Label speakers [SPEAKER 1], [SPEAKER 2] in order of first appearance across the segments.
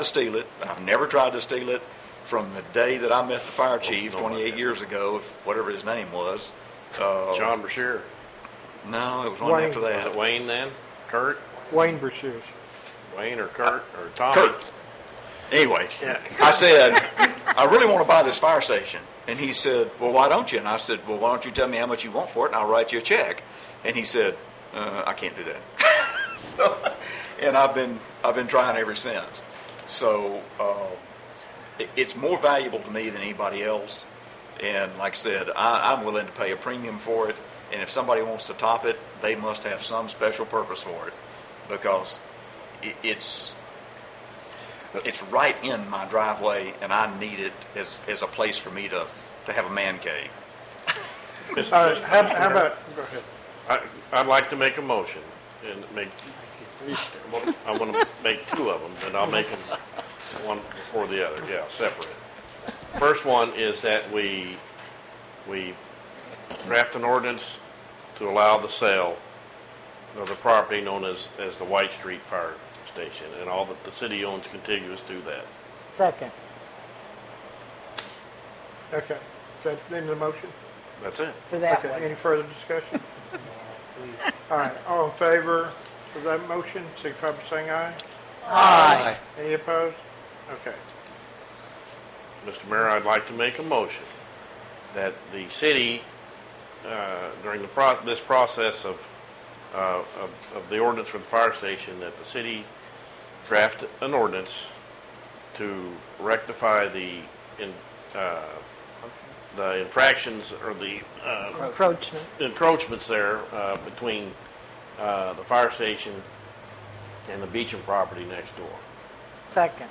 [SPEAKER 1] to steal it. I've never tried to steal it from the day that I met the fire chief 28 years ago, whatever his name was. Uh,
[SPEAKER 2] John Brashear.
[SPEAKER 1] No, it was one
[SPEAKER 3] Wayne.
[SPEAKER 1] after
[SPEAKER 2] Was
[SPEAKER 1] that.
[SPEAKER 2] it Wayne then? Kurt?
[SPEAKER 3] Wayne Brashears.
[SPEAKER 2] Wayne or Kurt or Tom?
[SPEAKER 1] Kurt. Anyway,
[SPEAKER 2] Yeah.
[SPEAKER 1] I said, I really want to buy this fire station. And he said, Well, why don't you? And I said, Well, why don't you tell me how much you want for it and I'll write you a check? And he said, uh, I can't do that. so, and I've been, I've been trying ever since. So, uh, it, it's more valuable to me than anybody else. And like I said, I, I'm willing to pay a premium for it. And if somebody wants to top it, they must have some special purpose for it because it, it's it's right in my driveway, and I need it as as a place for me to to have a man cave.
[SPEAKER 2] Mr.
[SPEAKER 3] All right,
[SPEAKER 2] Vice
[SPEAKER 3] Uh, how,
[SPEAKER 2] President.
[SPEAKER 3] how about, go ahead.
[SPEAKER 2] I, I'd like to make a motion and make, I wanna- I want to make two of them, and I'll make them one before the other, yeah, separate. First one is that we, we draft an ordinance to allow the sale of the property known as, as the White Street Fire Station, and all that the city owns contiguous to that.
[SPEAKER 4] Second.
[SPEAKER 3] Okay, that's the end of the motion?
[SPEAKER 2] That's it.
[SPEAKER 4] For that
[SPEAKER 3] Okay,
[SPEAKER 4] one.
[SPEAKER 3] any further discussion? All right, all in favor of that motion, signify by saying aye.
[SPEAKER 4] Aye.
[SPEAKER 3] Any opposed? Okay,
[SPEAKER 2] Mr. Mayor, I'd like to make a motion that the city, uh, during the pro, this process of, uh, of, of the ordinance for the fire station, that the city draft an ordinance to rectify the, in, uh, the infractions or the, uh,
[SPEAKER 4] Encroachment.
[SPEAKER 2] encroachments there uh, between uh, the fire station and the beaching property next door.
[SPEAKER 4] Second.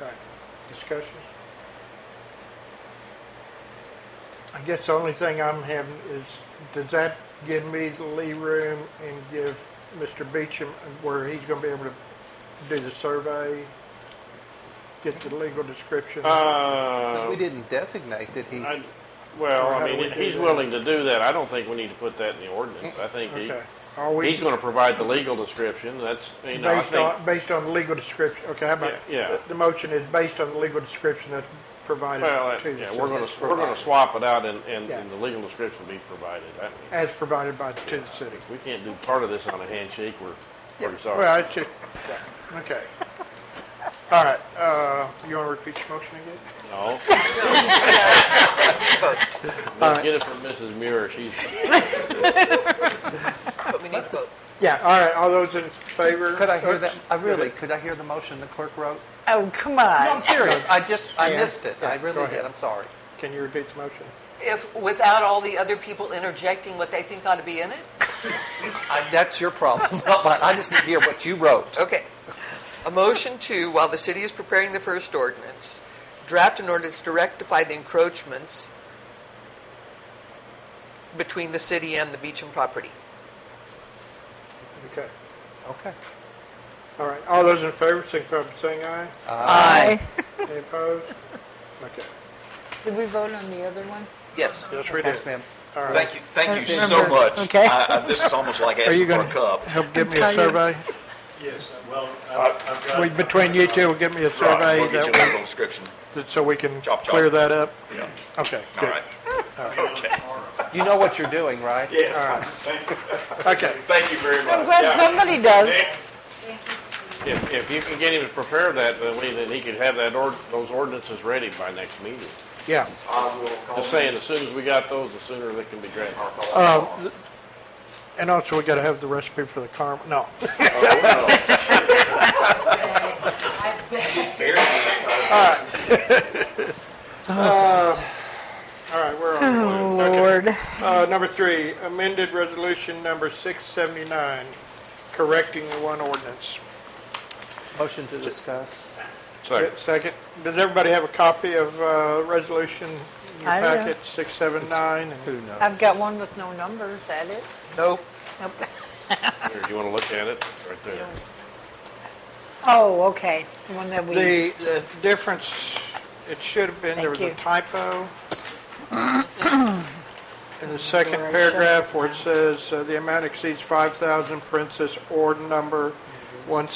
[SPEAKER 3] okay, discussions? I guess the only thing I'm having is, does that give me the lee room and give Mr. Beecham where he's gonna be able to do the survey? Get the legal description?
[SPEAKER 2] Uh,
[SPEAKER 5] We didn't designate that he,
[SPEAKER 2] I- Well,
[SPEAKER 3] Or how
[SPEAKER 2] I
[SPEAKER 3] do we
[SPEAKER 2] mean,
[SPEAKER 3] do
[SPEAKER 2] he's
[SPEAKER 3] that?
[SPEAKER 2] willing to do that. I don't think we need to put that in the ordinance. I think he,
[SPEAKER 3] Okay. Are we-
[SPEAKER 2] he's gonna provide the legal description. That's, you know, I
[SPEAKER 3] Based
[SPEAKER 2] think,
[SPEAKER 3] on, based on the legal description, okay, how about,
[SPEAKER 2] Yeah, yeah.
[SPEAKER 3] the- the motion is based on the legal description that's provided
[SPEAKER 2] well, I-
[SPEAKER 3] to
[SPEAKER 2] yeah, we're gonna,
[SPEAKER 3] the city,
[SPEAKER 2] we're gonna swap it out and, and
[SPEAKER 3] Yeah.
[SPEAKER 2] and the legal description be provided. I mean,
[SPEAKER 3] as provided by, to the city.
[SPEAKER 2] If we can't do part of this on a handshake, we're, we're
[SPEAKER 3] Well,
[SPEAKER 2] sorry.
[SPEAKER 3] it's just, yeah, okay. All right, uh, you want to repeat your motion again?
[SPEAKER 2] No. Get it from Mrs. Muir. She's,
[SPEAKER 6] But we need to vote.
[SPEAKER 3] Yeah, all right, all those in favor?
[SPEAKER 5] could I hear that, I really, could I hear the motion the clerk wrote?
[SPEAKER 4] Oh, come
[SPEAKER 5] No, I'm
[SPEAKER 4] on.
[SPEAKER 5] serious, I just, I
[SPEAKER 3] Yeah.
[SPEAKER 5] missed it, I
[SPEAKER 3] Yeah, go
[SPEAKER 5] really
[SPEAKER 3] ahead.
[SPEAKER 5] did, I'm sorry.
[SPEAKER 3] Can you repeat the motion?
[SPEAKER 6] If, without all the other people interjecting what they think ought to be in it?
[SPEAKER 5] I- That's your problem, not mine, I just need to hear what you wrote.
[SPEAKER 6] Okay. A motion to, while the city is preparing the first ordinance, draft an ordinance to rectify the encroachments between the city and the Beecham property.
[SPEAKER 3] Okay,
[SPEAKER 5] Okay.
[SPEAKER 3] all right, all those in favor, signify by saying aye.
[SPEAKER 4] Aye.
[SPEAKER 3] Any opposed? Okay,
[SPEAKER 4] Did we vote on the other one?
[SPEAKER 6] Yes.
[SPEAKER 3] yes, we
[SPEAKER 5] Yes,
[SPEAKER 3] did.
[SPEAKER 5] ma'am.
[SPEAKER 3] All right,
[SPEAKER 1] Thank you, thank you
[SPEAKER 4] That's
[SPEAKER 1] so
[SPEAKER 4] number-
[SPEAKER 1] much.
[SPEAKER 4] okay.
[SPEAKER 1] I, I, this is almost like
[SPEAKER 3] Are
[SPEAKER 1] asking
[SPEAKER 3] you
[SPEAKER 1] for a
[SPEAKER 3] gonna-
[SPEAKER 1] cup.
[SPEAKER 3] help give me a
[SPEAKER 4] tired.
[SPEAKER 3] survey?
[SPEAKER 7] Yes,
[SPEAKER 1] uh,
[SPEAKER 7] well, I- I've got.
[SPEAKER 3] Uh, We- Between you two, give me a
[SPEAKER 1] Right,
[SPEAKER 3] survey
[SPEAKER 1] we'll get you a
[SPEAKER 3] that
[SPEAKER 1] legal description.
[SPEAKER 3] we, so we can
[SPEAKER 1] Chop, chop.
[SPEAKER 3] clear that up?
[SPEAKER 1] Yeah.
[SPEAKER 3] Okay,
[SPEAKER 1] All
[SPEAKER 3] good.
[SPEAKER 1] right.
[SPEAKER 5] You know what you're doing, right?
[SPEAKER 1] Yes.
[SPEAKER 3] Okay,
[SPEAKER 1] Thank you very
[SPEAKER 4] I'm
[SPEAKER 1] much.
[SPEAKER 4] glad somebody does.
[SPEAKER 2] if, if you can get him to prepare that, then we, then he could have that ord, those ordinances ready by next meeting.
[SPEAKER 3] yeah.
[SPEAKER 1] I will call
[SPEAKER 2] Just saying, as soon as we got those, the sooner they can be drafted.
[SPEAKER 3] And also, we gotta have the recipe for the caramel, no. Uh, All right, we're
[SPEAKER 4] Oh.
[SPEAKER 3] on. the blue. Okay.
[SPEAKER 4] Lord.
[SPEAKER 3] Uh, number three, amended resolution number six seventy-nine, correcting the one ordinance.
[SPEAKER 5] Motion to discuss.
[SPEAKER 2] Second.
[SPEAKER 3] Second, does everybody have a copy of, uh, resolution in your
[SPEAKER 4] I do.
[SPEAKER 3] packet, six seven nine?
[SPEAKER 5] Who knows?
[SPEAKER 4] I've got one with no number. Is that it?
[SPEAKER 6] No.
[SPEAKER 4] Nope.
[SPEAKER 2] Here, you want to look at it? Right there.
[SPEAKER 4] Oh, okay. The one that we,
[SPEAKER 3] The, the difference, it should have been, there was a
[SPEAKER 4] Thank you.
[SPEAKER 3] typo. In the second
[SPEAKER 4] Right,
[SPEAKER 3] paragraph
[SPEAKER 4] second
[SPEAKER 3] where it says, uh, "The amount exceeds 5,000," parentheses, or number one